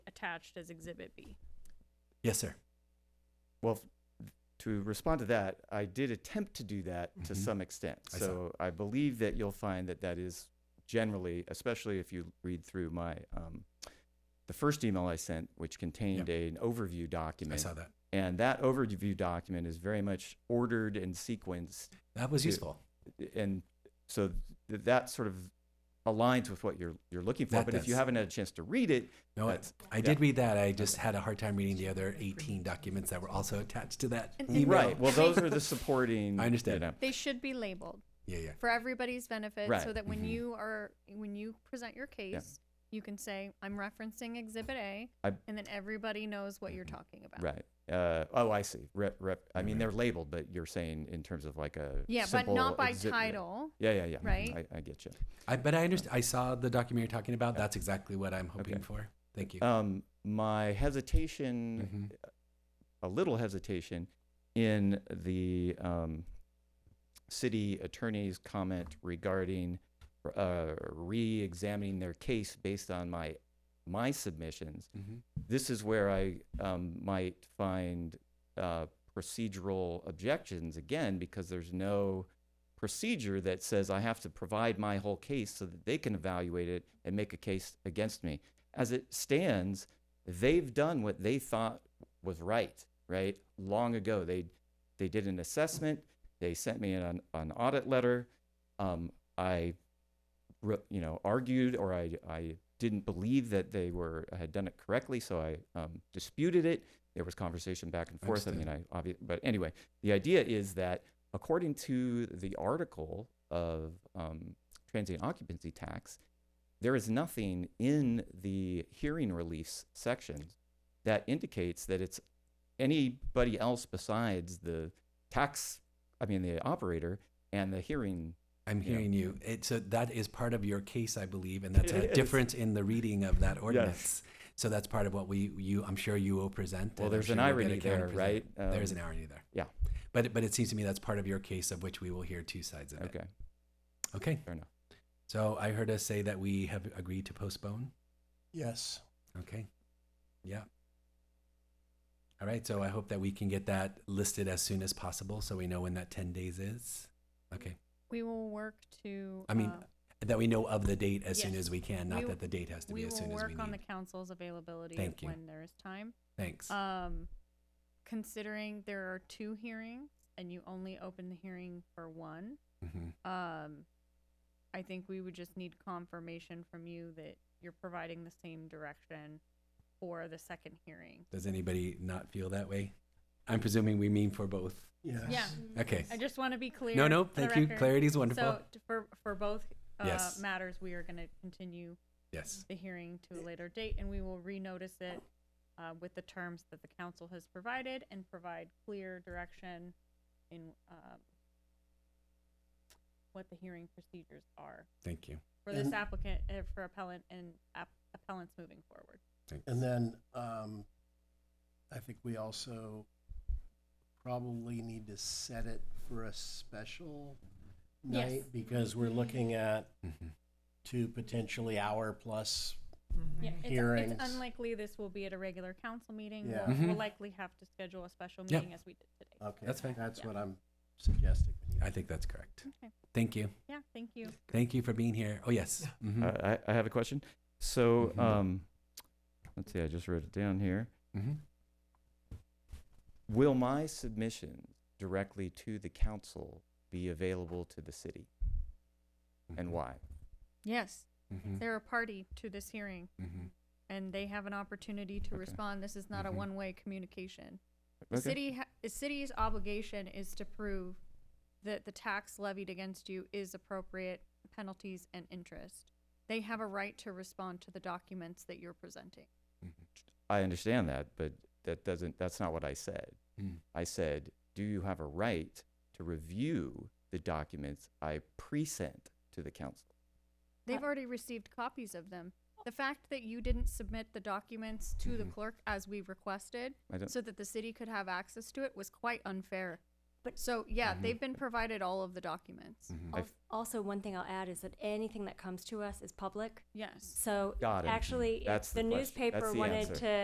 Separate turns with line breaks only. attached as Exhibit B.
Yes, sir.
Well, f- to respond to that, I did attempt to do that to
Mhm.
some extent.
I saw.
so I believe that you'll find that that is generally, especially if you read through my um, the first email I sent, which contained an overview
I
document,
saw that.
and that overview document is very much ordered and sequenced,
That was
Yeah.
useful.
and so th- that sort of aligns with what you're you're looking for.
That
but if you
does.
haven't had a chance to read it,
No, I,
That's-
I did read that. I just had a hard time reading the other 18 documents that were also attached to that
And- and-
email.
right? Well, those are the supporting.
I understand.
You know,
They should be labeled
Yeah, yeah.
for everybody's benefit so
Right. Mm-hmm.
that when
Mhm.
you are when you present your case, you can say I'm referencing Exhibit A
I-
and then everybody knows what you're talking about.
Right. Uh, oh, I see. Rep, rep, I mean,
Right.
they're labeled, but you're saying in terms of like a
Yeah, but
simple
not by
exhibit.
title.
Yeah, yeah, yeah.
right?
I, I get you.
I but I understand. I saw the document you're talking about. That's exactly what I'm hoping
Okay.
for. Thank you.
Um, my hesitation,
Mm-hmm.
Mhm.
a little hesitation, in the um, city attorney's comment regarding uh, re-examining their case based on my my submissions.
Mhm.
this is where I um, might find uh, procedural objections again because there's no procedure that says I have to provide my whole case so that they can evaluate it and make a case against me. As it stands, they've done what they thought was right, right? Long ago, they they did an assessment. They sent me an an audit letter. Um, I, re- you know, argued or I I didn't believe that they were had done it correctly, so I um, disputed it. There was conversation back and forth. I mean, I obvi- but anyway, the idea is that according to the article of um, transient occupancy tax, there is nothing in the hearing release section that indicates that it's anybody else besides the tax, I mean, the operator and the hearing.
I'm
yeah.
hearing you. It, so that is part of your case, I believe, and that's
It
a
is.
difference in the reading of that ordinance. So that's part of what we you. I'm sure you will present. and
Well,
I'm
there's
sure
an
you'll get
irony
a counter
there,
present.
right?
there is
Um,
an irony there.
yeah.
But but it seems to me that's part of your case, of which we will hear two sides of it.
Okay,
Okay.
fair enough.
So I heard us say that we have agreed to postpone.
Yes.
Okay. Yeah. All right. So I hope that we can get that listed as soon as possible so we know when that 10 days is. Okay.
We will work to
I mean,
uh,
That we know of the date as soon
Yes.
as we can, not
We-
that the date has to
we
be as
will
soon as
work
we
on the
need.
council's availability
Thank
of
you.
when there is time.
Thanks.
Um, considering there are two hearings and you only open the hearing for one,
Mhm.
um, I think we would just need confirmation from you that you're providing the same direction for the second hearing.
Does anybody not feel that way? I'm presuming we mean for both.
Yes.
Yeah.
Okay.
I just want to be clear.
No, no.
for the
Thank you.
record.
Clarity is wonderful.
So t- for, for both uh,
Yes.
matters, we are going to continue
yes.
the hearing to a later date, and we will renotice it uh, with the terms that the council has provided and provide clear direction in um, what the hearing procedures are
Thank you.
for this
And-
applicant, uh, for appellant and app- appellants moving forward.
Thanks.
And then um, I think we also probably need to set it for a special
Yes.
night because we're looking at
Mhm.
two potentially hour plus.
Yeah, it's-
Hearings.
It's unlikely this will be at a regular council meeting.
Yeah. Uh,
We'll- We'll
Mhm.
likely have to schedule a special
Yeah.
meeting as we did today.
Okay,
That's fine.
That's
Yeah.
what I'm suggesting.
I think that's correct.
Okay.
Thank you.
Yeah, thank you.
Thank you for being here. Oh, yes. Mhm.
Uh, I, I have a question. So,
Mhm.
um, let's see, I just wrote it down here.
Mhm.
Will my submission directly to the council be available to the city and
Mhm.
why?
Yes,
Mm.
Mhm.
they're a party to this hearing,
Mhm.
and they have an opportunity to
Okay.
respond. This is not a
Mm-hmm.
Mhm.
one-way communication. The
Okay.
city, ha- the city's obligation is to prove that the tax levied against you is appropriate penalties and interest. They have a right to respond to the documents that you're presenting.
I understand that, but that doesn't, that's not what I said.
Mm.
I said, do you have a right to review the documents I present to the council? Uh,
They've already received copies of them. The fact that you didn't submit the documents to the
Mhm.
clerk as we requested
Mm-hmm. I don't,
so that the city could have access to it was quite unfair. So, yeah,
Mm-hmm.
Mhm.
they've been provided all of the documents.
Mhm.
I've-
Al- Also, one thing I'll add is that anything that comes to us is public.
Yes.
So
Got it.
actually, if
That's the question.
the
That's
newspaper
the
wanted
answer.
to